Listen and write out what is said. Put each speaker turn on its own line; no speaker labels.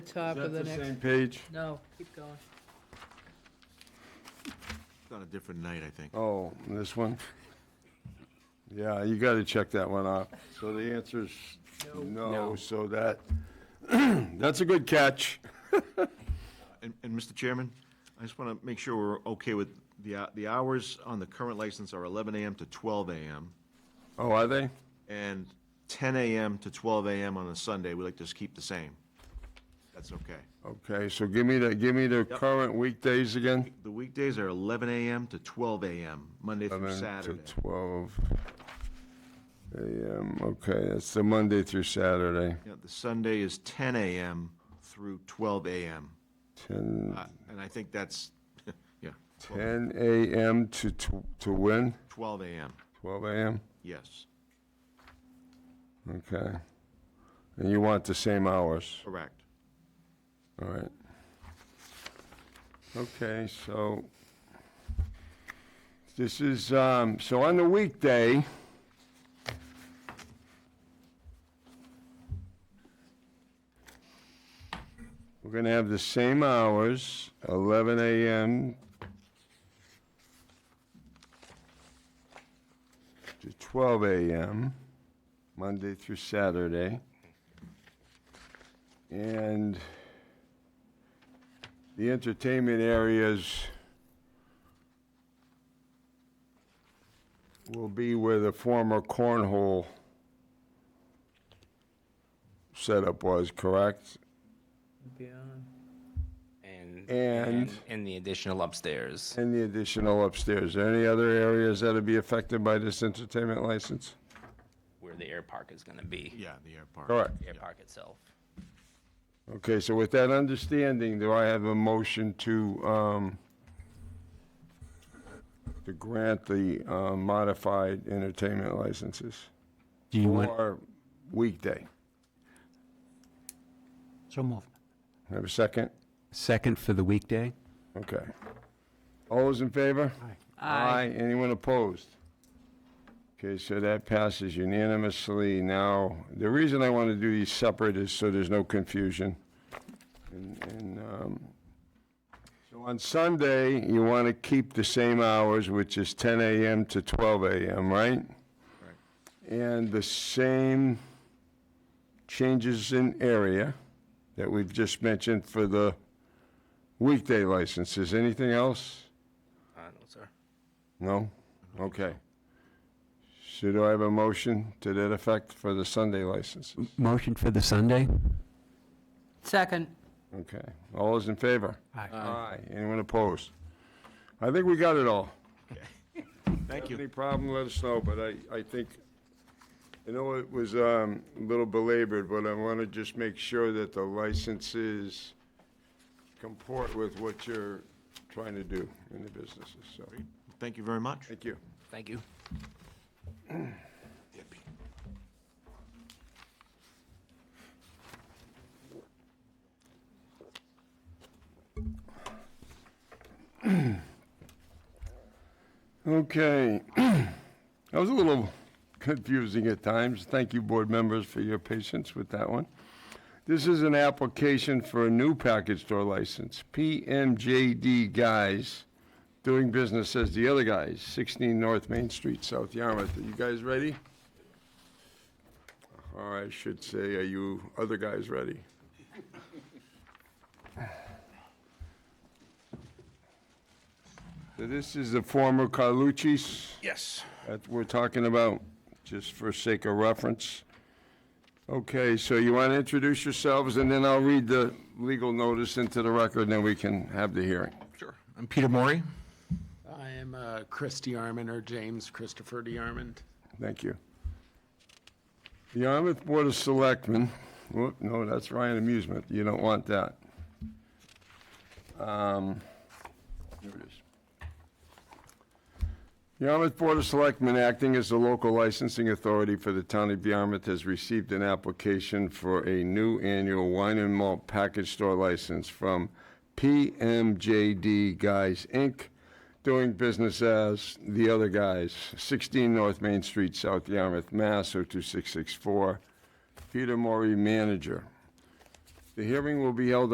top
Is
of the
that the
next,
same page?
no, keep going.
It's on a different night, I think.
Oh, this one? Yeah, you gotta check that one off. So the answer's no, so that, that's a good catch.
And, and Mr. Chairman, I just want to make sure we're okay with the, hou- the hours on the current license are 11 AM to 12 AM
Oh, are they?
and 10 AM to 12 AM on a Sunday. We like to just keep the same. That's okay.
Okay, so give me the, give me the current weekdays again.
The weekdays are 11 AM to 12 AM, Monday through
11 to
Saturday.
12 AM, okay, that's the Monday through Saturday,
Yeah, The Sunday is 10 AM through 12 AM.
10,
Uh, And I think that's, yeah, 12
10 AM to, tw- to when?
12 AM,
12 AM?
yes,
Okay. And you want the same hours?
correct.
All right. Okay, so this is, um, so on the weekday, we're gonna have the same hours, eleven AM to twelve AM, Monday through Saturday. And the entertainment areas will be where the former cornhole setup was, correct?
Beyond.
And,
And-
and the additional upstairs.
And the additional upstairs. Are any other areas that'll be affected by this entertainment license?
where the air park is going to be,
Yeah, the airport.
Correct.
air park itself.
Okay, so with that understanding, do I have a motion to, um, to grant the uh, modified entertainment licenses?
Do you want,
For weekday.
So moved.
Have a second?
second for the weekday?
Okay. All those in favor?
Aye.
Anyone opposed? Okay, so that passes unanimously. Now, the reason I want to do these separate is so there's no confusion. And, and, um, so on Sunday, you want to keep the same hours, which is 10 a.m. to 12 a.m., right? And the same changes in area that we've just mentioned for the weekday licenses. Anything else?
Uh, no, sir.
No? Okay. Should I have a motion to that effect for the Sunday licenses?
Motion for the Sunday?
Second,
Okay. All those in favor?
Aye.
Aye. Anyone opposed? I think we got it all.
Thank you.
Any problem, let us know, but I, I think, I know it was um, a little belabored, but I want to just make sure that the licenses comport with what you're trying to do in the businesses, so,
Thank you very much.
thank you.
Thank you.
Okay. That was a little confusing at times. Thank you, board members, for your patience with that one. This is an application for a new package store license, PMJD Guys, doing business as the other guys, 16 North Main Street, South Yarmouth. Are you guys ready? Or I should say, are you other guys ready? So This is the former Carlucci's.
Yes.
that we're talking about, just for sake of reference. Okay, so you want to introduce yourselves, and then I'll read the legal notice into the record, and then we can have the hearing.
Sure. I'm Peter Maury.
I am uh, Chris DiArmond, or James Christopher DiArmond.
Thank you. The Yarmouth Board of Selectmen, whoop, no, that's Ryan Amusement, you don't want that. Um, Here it is. Yarmouth Board of Selectmen, acting as the local licensing authority for the town of Yarmouth, has received an application for a new annual wine and malt package store license from PMJD Guys, Inc., doing business as The Other Guys, 16 North Main Street, South oh Yarmouth, Mass. 02664. Peter Maury, manager. The hearing will be held